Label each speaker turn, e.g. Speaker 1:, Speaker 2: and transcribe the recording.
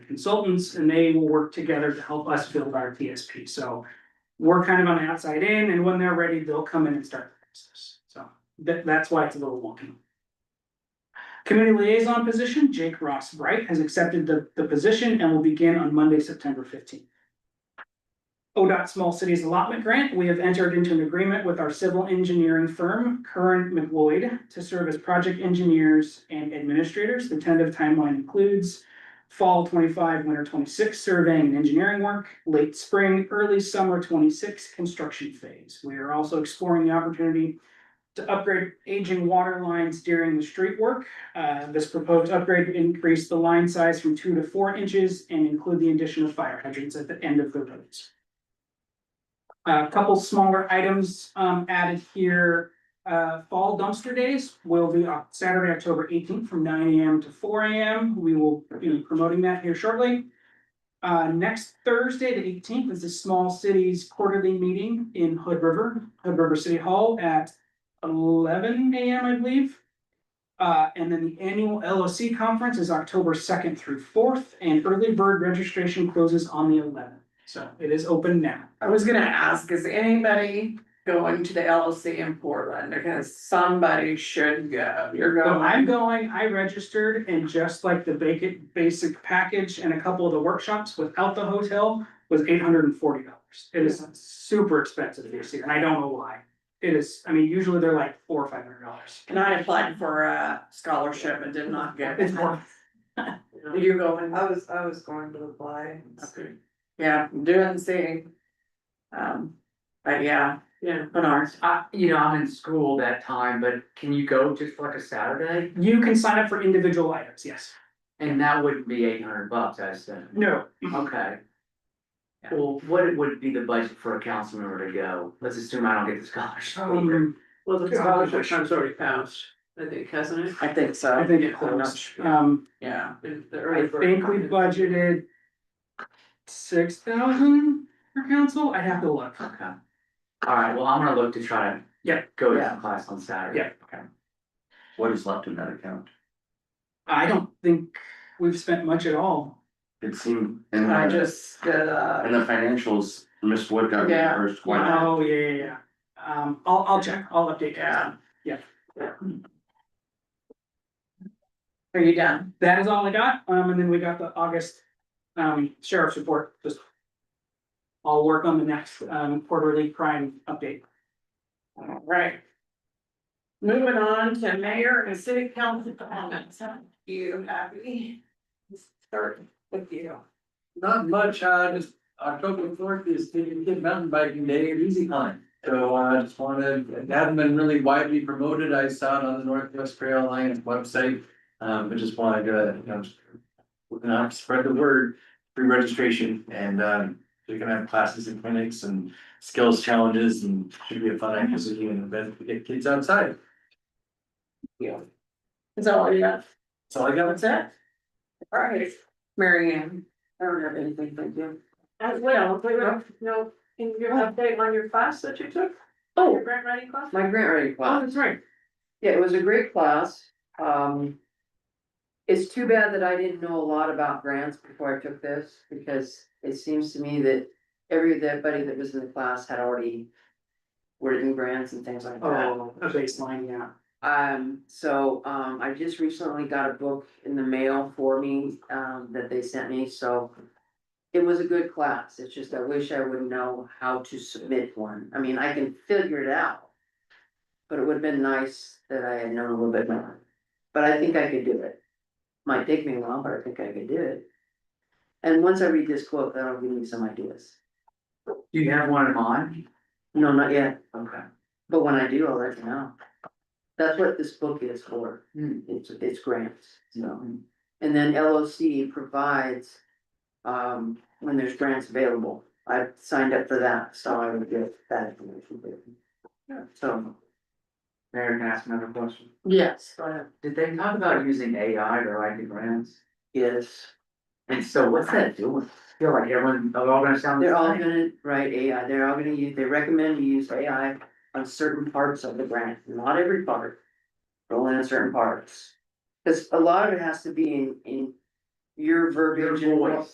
Speaker 1: consultants and they will work together to help us build our TSP, so. We're kind of on the outside in and when they're ready, they'll come in and start the process, so that that's why it's a little wonky. Committee liaison position, Jake Ross Bright has accepted the the position and will begin on Monday, September fifteenth. ODOT Small Cities Allotment Grant, we have entered into an agreement with our civil engineering firm, Curran McLeod, to serve as project engineers and administrators. The tentative timeline includes fall twenty-five, winter twenty-six surveying and engineering work, late spring, early summer twenty-six construction phase. We are also exploring the opportunity to upgrade aging water lines during the street work. Uh, this proposed upgrade would increase the line size from two to four inches and include the addition of fire hydrants at the end of the roads. A couple smaller items um, added here. Uh, fall dumpster days will be on Saturday, October eighteenth from nine AM to four AM. We will be promoting that here shortly. Uh, next Thursday, the eighteenth, is the Small Cities Quarterly Meeting in Hood River, Hood River City Hall at eleven AM, I believe. Uh, and then the annual LOC conference is October second through fourth, and early bird registration closes on the eleventh. So it is open now.
Speaker 2: I was gonna ask, is anybody going to the LLC in Portland? Because somebody should go, you're
Speaker 1: So I'm
Speaker 2: going.
Speaker 1: going, I registered and just like the basic, basic package and a couple of the workshops without the hotel was eight hundred and forty dollars. It is super expensive this year and I don't know why. It is, I mean, usually they're like four or five hundred dollars.
Speaker 2: And I applied for a scholarship and did not get
Speaker 1: It's
Speaker 2: it.
Speaker 1: more,
Speaker 2: You're going,
Speaker 3: I was, I was going to apply.
Speaker 2: okay, yeah, do and see. Um, but yeah,
Speaker 3: Yeah.
Speaker 2: but ours,
Speaker 4: I, you know, I'm in school that time, but can you go just for like a Saturday?
Speaker 1: you can sign up for individual items, yes.
Speaker 4: And that would be eight hundred bucks, I assume.
Speaker 1: No,
Speaker 2: Mm-hmm.
Speaker 4: Okay. Well, what would be the budget for a council member to go? Let's assume I don't get the scholarship.
Speaker 1: um,
Speaker 3: Well, the
Speaker 1: Yeah.
Speaker 3: scholarship fund's already passed, I think, hasn't it?
Speaker 2: I think so.
Speaker 1: I think it
Speaker 2: I'm not
Speaker 1: closed.
Speaker 2: sure.
Speaker 1: Um,
Speaker 2: Yeah,
Speaker 3: And the
Speaker 1: I
Speaker 3: early bird
Speaker 1: think we
Speaker 3: fund.
Speaker 1: budgeted six thousand for council. I'd have to look.
Speaker 4: Okay. All right, well, I'm gonna look to try to.
Speaker 1: Yeah.
Speaker 4: Go to
Speaker 2: Yeah.
Speaker 4: some class on Saturday.
Speaker 1: Yeah.
Speaker 4: Okay.
Speaker 5: What is left in that account?
Speaker 1: I don't think we've spent much at all.
Speaker 5: It seemed, in
Speaker 2: I
Speaker 5: the,
Speaker 2: just did uh,
Speaker 5: in
Speaker 2: a,
Speaker 5: the financials, Miss Wood got
Speaker 2: Yeah.
Speaker 5: reimbursed one.
Speaker 1: Oh, yeah, yeah, yeah. Um, I'll, I'll check, I'll update you.
Speaker 2: yeah.
Speaker 1: Yeah.
Speaker 2: Are you done?
Speaker 1: That is all I got, um, and then we got the August, um, sheriff's report, just. I'll work on the next, um, quarterly crime update.
Speaker 2: All right. Moving on to mayor and city council comments. You happy? Start with you.
Speaker 6: Not much, uh, just October fourth is Kid Kid Mountain Biking Day at Easy Climb. So uh, I just wanted, it hadn't been really widely promoted, I saw it on the Northwest Trail Alliance website. Um, but just wanted to, you know, just- you know, spread the word, free registration and um, they're gonna have classes and clinics and skills challenges and should be a fun activity and event to get kids outside.
Speaker 2: Is that all you got?
Speaker 6: That's all I got.
Speaker 2: That's it? All right, Mary Ann, I don't have anything to do.
Speaker 3: As well, but no, no, can you give an update on your class that you took? Your
Speaker 2: Oh,
Speaker 3: grant writing class? Oh,
Speaker 2: my grant writing class.
Speaker 1: that's right.
Speaker 2: Yeah, it was a great class, um. It's too bad that I didn't know a lot about grants before I took this, because it seems to me that everybody that was in the class had already. Written grants and things like that,
Speaker 1: Oh, a baseline, yeah.
Speaker 2: um, so, um, I just recently got a book in the mail for me, um, that they sent me, so. It was a good class, it's just I wish I would know how to submit one, I mean, I can figure it out. But it would have been nice that I had known a little bit more, but I think I could do it. Might take me a while, but I think I could do it. And once I read this quote, that'll give me some ideas,
Speaker 4: Do you have one in mind?
Speaker 2: no, not yet,
Speaker 4: Okay.
Speaker 2: but when I do, I'll let you know. That's what this book is for,
Speaker 4: Hmm. Mm-hmm.
Speaker 2: it's, it's grants, so. And then LOC provides, um, when there's grants available. I signed up for that, so I would get that information. Yeah. So.
Speaker 4: Mayor, can I ask another question?
Speaker 2: Yes. Go ahead.
Speaker 4: Did they talk about using AI to write the grants?
Speaker 2: Yes,
Speaker 4: And so what's that doing? I Feel like everyone, are all gonna sound the
Speaker 2: they're all
Speaker 4: same?
Speaker 2: gonna write AI, they're all gonna use, they recommend you use AI on certain parts of the grant, not every part. But only on certain parts. Cause a lot of it has to be in, in, your verbiage and
Speaker 4: Your
Speaker 2: what-
Speaker 4: voice.